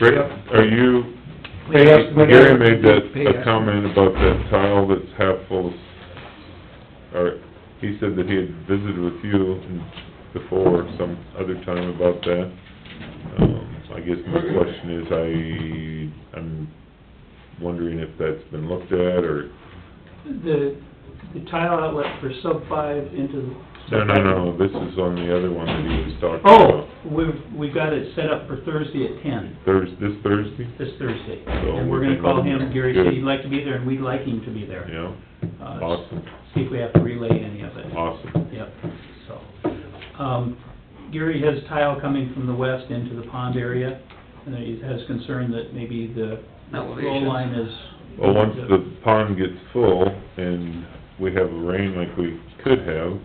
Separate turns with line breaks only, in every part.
Rick, are you,
They estimate-
Gary made that,
Pay
a
estimate.
comment about that tile that's half full, of- or, he said that he had visited with you before, some other time about that. Um, I guess my question is, I, I'm wondering if that's been looked at, or,
The, the tile outlet for sub five into the...
no, no, no, Oh, this is on the other one that he was talking
Oh,
about.
we've, we got it set up for Thursday at ten,
Thurs, this Thursday?
this Thursday.
So
And we're
we
gonna
can-
call him, Gary said
Good.
he'd like to be there, and we'd like him to be there.
Yeah,
Uh,
awesome,
See if we have to relay any of it.
awesome.
Yep, so, um, Gary has tile coming from the west into the pond area, and he has concern that maybe the flow
Elevation.
line is...
Well, once the pond gets full and we have rain like we could have,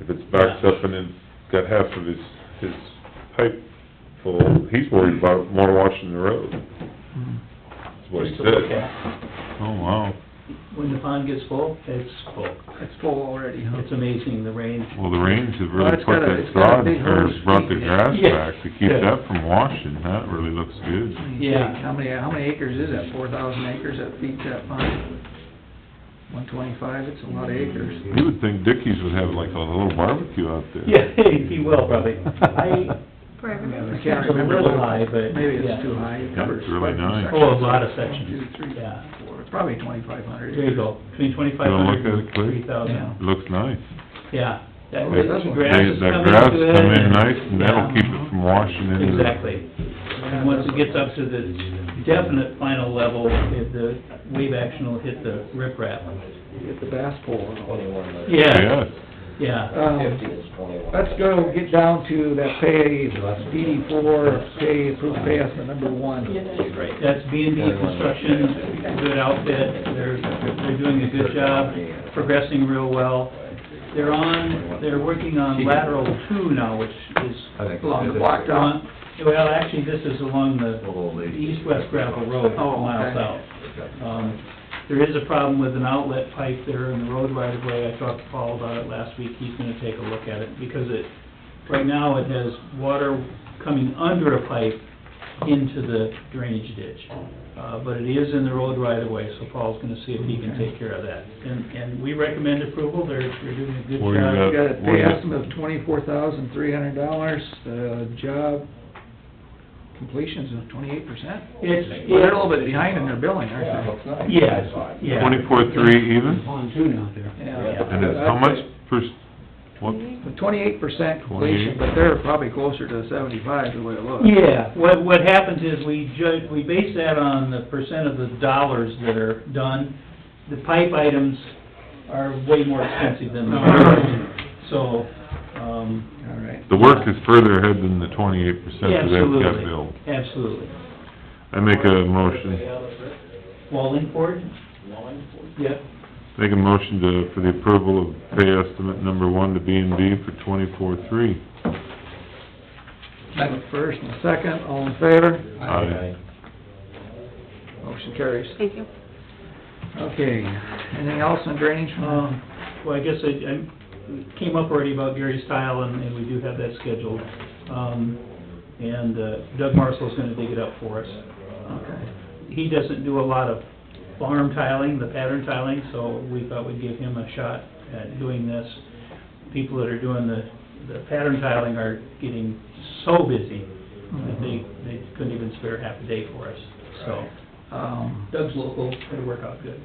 if it's backed up and it's got half of his, his pipe full, he's worried about more washing the road. That's what he
Just to look
said.
at.
Oh, wow.
When the pond gets full, it's full.
It's full already, huh?
It's amazing, the rain,
Well, the rains have
Well,
really
it's
put
got a-
that
it's got a
sod,
big
or
hose
brought the
feed in.
grass
Yeah.
back to keep
Yeah.
that from washing. That really looks good.
Let me
Yeah.
think, How many, how many acres is that? Four thousand acres that feeds that pond? One twenty-five, it's a lot of acres.
You would think Dickies would have like a little barbecue out there.
Yeah, he will probably. I,
for
I
everybody.
can't
It's a
remember.
little high, but,
Maybe
yeah.
it's too high. It
Yeah,
covers
it's really
quite
nice.
sections.
oh, a lot of
One,
sections,
two, three,
yeah.
four, probably twenty-five hundred.
There you go, between twenty-five hundred
You wanna look at
and
it, Clay?
three thousand,
Looks nice.
yeah. That
Well, that's
the
what-
grass
They-
is
that
coming
grass
good
come in
and-
nice, and that'll
yeah,
keep it from washing into the...
Exactly. And once it gets up to the definite final level, if the wave action will hit the riprap.
Get the bass pole and all.
Yeah,
Yes,
yeah.
Um, Let's go get down to that pay, DD four, pay, approved pay estimate number one.
That's B and B Construction, good outfit, they're, they're doing a good job, progressing real well. They're on, they're working on lateral two now, which is
Along the block down.
Along- Well, actually, this is along the east-west gravel road,
Oh, okay.
miles out. Um, There is a problem with an outlet pipe there in the road right-of-way. I talked to Paul about it last week. He's gonna take a look at it, because it, right now, it has water coming under a pipe into the drainage ditch. Uh, but it is in the road right-of-way, so Paul's gonna see if he can take care of that. And, and we recommend approval. They're, they're doing a good job.
Where you
We got a
Uh, What
pay
is it?
estimate of twenty-four thousand, three hundred dollars, the job completions of twenty-eight percent.
It's,
Well, they're a little bit behind in their billing, aren't
nice.
Yes, yeah.
twenty-four, three even,
Pontoon out there.
they? Yeah.
and it's how much per, what,
Twenty-eight percent completion,
28.
but they're probably closer to seventy-five, the way it looks.
Yeah, what, what happens is we judge, we base that on the percent of the dollars that are done. The pipe items are way more expensive than the so, um,
All right.
the work is further ahead than the twenty-eight percent that they've got billed.
absolutely, absolutely.
I make a motion,
Wallingford? Wallingford? Yep,
make a motion to, for the approval of pay estimate number one to B and B for twenty-four, three.
Have a First and a second, all in favor?
Aye.
Motion carries.
Thank you.
Okay, anything else on drainage?
um, well, I guess I, I came up already about Gary's tile, and, and we do have that scheduled. Um, and uh, Doug Marshall's gonna dig it up for us.
Okay.
he doesn't do a lot of farm tiling, the pattern tiling, so we thought we'd give him a shot at doing this. People that are doing the, the pattern tiling are getting so busy
Mm-hmm.
that they, they couldn't even spare half a day for us, so.
Um,
Doug's local, it'll work out good.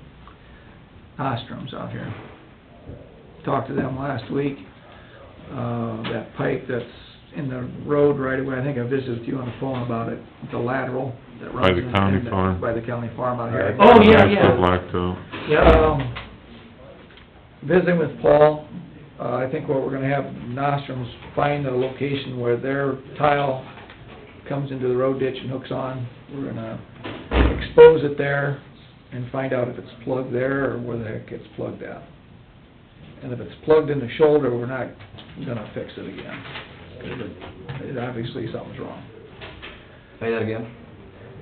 Ostrom's out here. Talked to them last week. Uh, that pipe that's in the road right away, I think I visited with you on the phone about it, the lateral that runs.
By the
in-
county
in the-
farm.
By the county farm out here.
Oh, yeah,
Nice
yeah.
for blacktop.
Yeah,
Um, visiting with Paul, uh, I think what we're gonna have Nostrum's find a location where their tile comes into the road ditch and hooks on. We're gonna expose it there and find out if it's plugged there or where the heck it's plugged at. And if it's plugged in the shoulder, we're not gonna fix it again. 'Cause it- it- Obviously, something's wrong.
Say that again?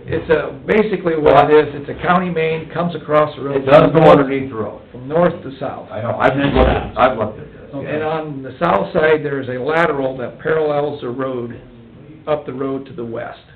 It's a, basically what it is, it's a county main, comes across the road.
It does go underneath the road.
From north to south.
I know, I've looked, at- I've looked at this.
And on the south side, there is a lateral that parallels the road, up the road to the west.